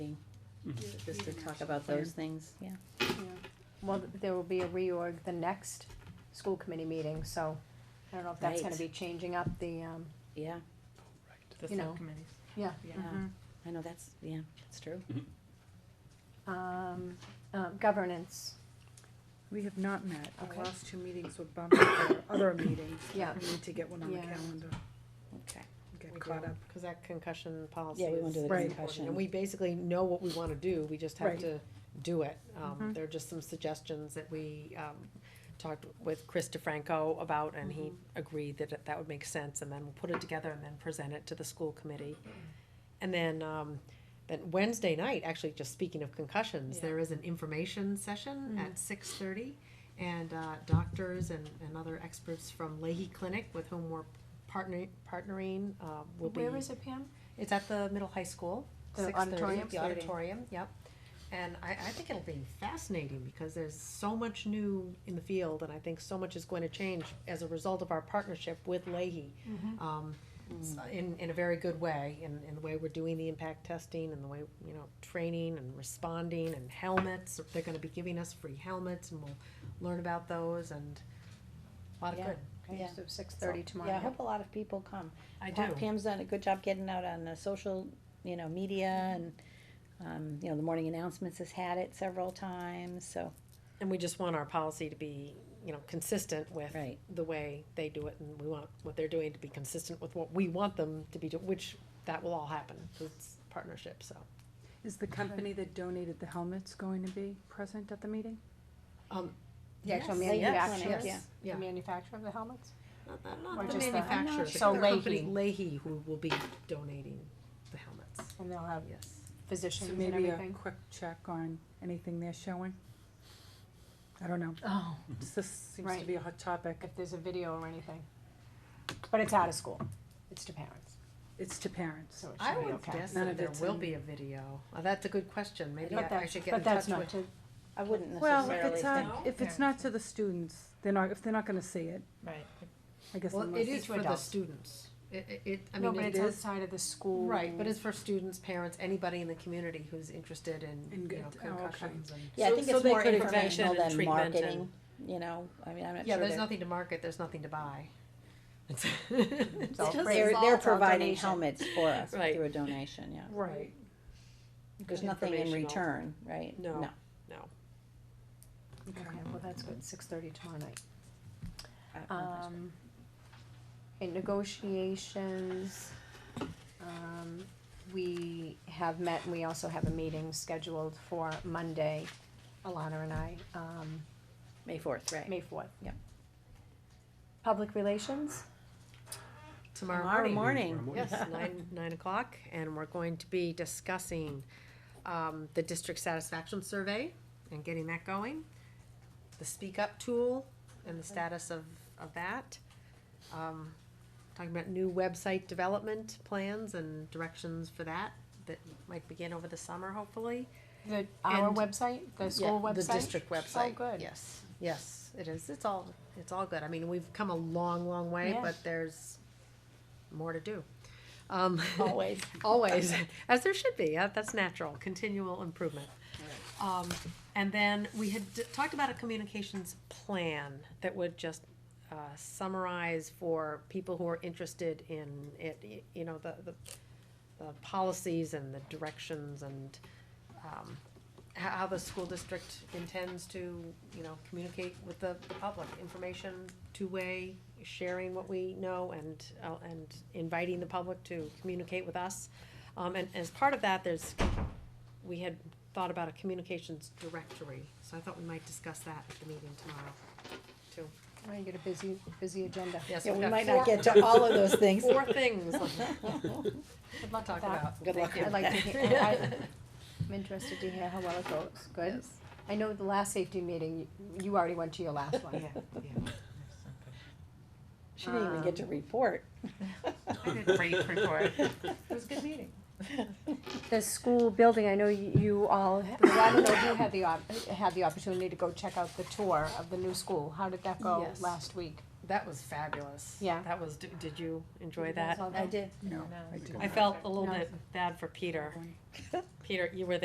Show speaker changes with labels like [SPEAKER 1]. [SPEAKER 1] just to talk about those things.
[SPEAKER 2] Well, there will be a reorg the next school committee meeting, so I don't know if that's gonna
[SPEAKER 1] Right.
[SPEAKER 2] be changing up the, um,
[SPEAKER 1] Yeah,
[SPEAKER 3] The
[SPEAKER 2] You know.
[SPEAKER 3] subcommittees.
[SPEAKER 2] Yeah. Mm-hmm.
[SPEAKER 3] Yeah.
[SPEAKER 1] yeah,
[SPEAKER 4] Mm-hmm.
[SPEAKER 1] I know, that's, yeah, that's true.
[SPEAKER 2] um, uh, governance.
[SPEAKER 5] We have not met.
[SPEAKER 2] Okay.
[SPEAKER 5] Our last two meetings were bumped with our other meetings.
[SPEAKER 2] Yeah.
[SPEAKER 5] We need to get one on the
[SPEAKER 2] Yeah.
[SPEAKER 5] calendar,
[SPEAKER 1] Okay.
[SPEAKER 5] get
[SPEAKER 4] We
[SPEAKER 5] caught
[SPEAKER 4] do,
[SPEAKER 5] up.
[SPEAKER 4] Cause that concussion policy
[SPEAKER 1] Yeah, we wanna
[SPEAKER 4] is
[SPEAKER 1] do the
[SPEAKER 5] Right.
[SPEAKER 1] concussion.
[SPEAKER 4] And we basically know what we wanna do, we just have
[SPEAKER 5] Right.
[SPEAKER 4] to do it. Um,
[SPEAKER 2] Mm-hmm.
[SPEAKER 5] Mhm.
[SPEAKER 4] there are just some suggestions that we, um, talked with Chris DeFranco about, and he
[SPEAKER 2] Mm-hmm.
[SPEAKER 4] agreed that it- that would make sense, and then we'll put it together and then present it to the school committee. And then, um, then Wednesday night, actually, just speaking of concussions, there is an information session
[SPEAKER 2] Mm.
[SPEAKER 4] at six thirty. And, uh, doctors and, and other experts from Leahy Clinic with whom we're partnering, partnering, uh, will be.
[SPEAKER 2] Where is it, Pam?
[SPEAKER 4] It's at the middle high school.
[SPEAKER 2] The
[SPEAKER 4] 6:30,
[SPEAKER 2] auditorium?
[SPEAKER 4] The auditorium, yep. And I, I think it'll be fascinating because there's so much new in the field and I think so much is going to change as a result of our partnership with Leahy. Um, s- in, in a very good way, in, in the way we're doing the impact testing and the way, you know, training and responding and helmets. They're gonna be giving us free helmets and we'll learn about those and a lot of
[SPEAKER 1] Yeah.
[SPEAKER 4] good.
[SPEAKER 2] Okay,
[SPEAKER 1] Yeah.
[SPEAKER 2] so six thirty tomorrow.
[SPEAKER 1] Yeah, I hope a lot of people come.
[SPEAKER 4] I
[SPEAKER 1] Pa-
[SPEAKER 4] do.
[SPEAKER 1] Pam's done a good job getting out on the social, you know, media and, um, you know, the morning announcements has had it several times, so,
[SPEAKER 4] And we just want our policy to be, you know, consistent with
[SPEAKER 1] right.
[SPEAKER 4] the way they do it, and we want what they're doing to be consistent with what we want them to be doing, which that will all happen, 'cause it's partnership, so.
[SPEAKER 5] Is the company that donated the helmets going to be present at the meeting?
[SPEAKER 4] Um,
[SPEAKER 2] The actual
[SPEAKER 1] Yes. Yes.
[SPEAKER 2] manufacturers,
[SPEAKER 1] Yes.
[SPEAKER 2] the
[SPEAKER 4] Yeah.
[SPEAKER 2] manufacturer of the helmets?
[SPEAKER 4] Not
[SPEAKER 2] Or
[SPEAKER 4] the
[SPEAKER 2] just the-
[SPEAKER 4] manufacturer,
[SPEAKER 2] So
[SPEAKER 4] the company,
[SPEAKER 2] Leahy.
[SPEAKER 4] Leahy, who will be donating the helmets,
[SPEAKER 2] And they'll have
[SPEAKER 4] yes.
[SPEAKER 5] So
[SPEAKER 2] physicians and
[SPEAKER 5] maybe a
[SPEAKER 2] everything.
[SPEAKER 5] quick check on anything they're showing? I don't know,
[SPEAKER 2] Oh.
[SPEAKER 5] this seems to
[SPEAKER 2] Right.
[SPEAKER 5] be a hot topic.
[SPEAKER 2] If there's a video or anything. But it's out of school, it's to parents,
[SPEAKER 5] It's to parents.
[SPEAKER 2] so it
[SPEAKER 4] I
[SPEAKER 2] should be
[SPEAKER 4] would
[SPEAKER 2] okay.
[SPEAKER 4] guess
[SPEAKER 5] None
[SPEAKER 4] that
[SPEAKER 5] of
[SPEAKER 4] there
[SPEAKER 5] it's
[SPEAKER 4] will
[SPEAKER 5] in-
[SPEAKER 4] be a video, Uh, that's a good question, maybe
[SPEAKER 2] But
[SPEAKER 4] I I
[SPEAKER 2] that's,
[SPEAKER 4] should get in
[SPEAKER 2] but that's
[SPEAKER 4] touch
[SPEAKER 2] not
[SPEAKER 4] with.
[SPEAKER 2] to,
[SPEAKER 1] I wouldn't
[SPEAKER 5] Well, if
[SPEAKER 1] necessarily
[SPEAKER 5] it's,
[SPEAKER 4] uh,
[SPEAKER 1] think,
[SPEAKER 5] not- if it's not to the students, they're not, if they're not gonna see it,
[SPEAKER 3] Right.
[SPEAKER 5] I guess
[SPEAKER 4] Well,
[SPEAKER 5] unless.
[SPEAKER 4] it is
[SPEAKER 2] to
[SPEAKER 4] for the
[SPEAKER 2] adults.
[SPEAKER 4] students, it, it- it, I
[SPEAKER 2] no,
[SPEAKER 4] mean,
[SPEAKER 2] but
[SPEAKER 4] it
[SPEAKER 2] it's
[SPEAKER 4] is,
[SPEAKER 2] outside of the school.
[SPEAKER 4] right, but it's for students, parents, anybody in the community who's interested in,
[SPEAKER 5] In
[SPEAKER 4] you know,
[SPEAKER 5] good- oh, okay.
[SPEAKER 4] concussions and.
[SPEAKER 1] yeah, I
[SPEAKER 4] So-
[SPEAKER 1] think
[SPEAKER 4] so
[SPEAKER 1] it's
[SPEAKER 4] they
[SPEAKER 1] more
[SPEAKER 4] could have
[SPEAKER 1] informational
[SPEAKER 4] mentioned
[SPEAKER 1] than
[SPEAKER 4] treatment and-
[SPEAKER 1] marketing, you know, I mean, I'm not sure.
[SPEAKER 4] Yeah, there's
[SPEAKER 1] they're-
[SPEAKER 4] nothing to market, there's nothing to buy. It's
[SPEAKER 2] It's all free.
[SPEAKER 1] They're, they're
[SPEAKER 2] It's all
[SPEAKER 1] providing
[SPEAKER 2] donation.
[SPEAKER 1] helmets for us
[SPEAKER 4] Right.
[SPEAKER 1] through a donation, yeah.
[SPEAKER 5] Right.
[SPEAKER 1] There's nothing in
[SPEAKER 4] Informational.
[SPEAKER 1] return, right?
[SPEAKER 4] No.
[SPEAKER 1] No.
[SPEAKER 2] Okay, well, that's good, six thirty tomorrow night.
[SPEAKER 1] I don't know if that's-
[SPEAKER 2] Um, in negotiations, um, we have met, and we also have a meeting scheduled for Monday, Alana and I, um,
[SPEAKER 1] May fourth, right.
[SPEAKER 2] May fourth.
[SPEAKER 1] Yep.
[SPEAKER 2] Public relations,
[SPEAKER 4] Tomorrow
[SPEAKER 1] Tomorrow
[SPEAKER 4] morning.
[SPEAKER 1] morning.
[SPEAKER 4] Yes, nine, nine o'clock, and we're going to be discussing, um, the district satisfaction survey and getting that going. The speak up tool and the status of, of that. Um, talking about new website development plans and directions for that, that might begin over the summer, hopefully.
[SPEAKER 2] the, our
[SPEAKER 4] And-
[SPEAKER 2] website, the school
[SPEAKER 4] Yeah,
[SPEAKER 2] website?
[SPEAKER 4] The district website.
[SPEAKER 2] Oh, good.
[SPEAKER 4] Yes, yes, it is. It's all, it's all good. I mean, we've come a long, long way,
[SPEAKER 2] Yeah.
[SPEAKER 4] but there's more to do. Um,
[SPEAKER 1] Always.
[SPEAKER 4] always, as there should be. Uh, That's natural, continual improvement. Um, and then we had d- talked about a communications plan that would just uh, summarize for people who are interested in it, y- you know, the, the, the policies and the directions and um, how, how the school district intends to, you know, communicate with the, the public, information, two-way, sharing what we know and, uh, and inviting the public to communicate with us. Um, and as part of that, there's, we had thought about a communications directory, so I thought we might discuss that at the meeting tomorrow, too.
[SPEAKER 2] We're gonna get a busy, busy agenda.
[SPEAKER 4] Yes,
[SPEAKER 1] Yeah,
[SPEAKER 4] we've
[SPEAKER 1] we
[SPEAKER 4] got
[SPEAKER 1] might not
[SPEAKER 4] four-
[SPEAKER 1] get to all of those things.
[SPEAKER 4] Four things. Good luck
[SPEAKER 2] with that.
[SPEAKER 1] Good luck.
[SPEAKER 2] I'd like to hear, I, I'm interested to hear how well it goes, good? I know the last safety meeting, you- you already went to your last one.
[SPEAKER 4] Yeah, yeah.
[SPEAKER 1] She didn't even get to report.
[SPEAKER 3] I did brief report.
[SPEAKER 4] It was a good meeting.
[SPEAKER 2] The school building, I know you you all, well, I don't know if you had the, op- had the opportunity to go check out the tour of the new school. How did that go
[SPEAKER 4] Yes.
[SPEAKER 2] last week?
[SPEAKER 4] That was fabulous.
[SPEAKER 2] Yeah.
[SPEAKER 4] That was, d- did you enjoy that?
[SPEAKER 1] I did.
[SPEAKER 5] No, I
[SPEAKER 4] I
[SPEAKER 5] didn't.
[SPEAKER 4] felt a little
[SPEAKER 2] No.
[SPEAKER 4] bit bad for Peter. Peter, you were there.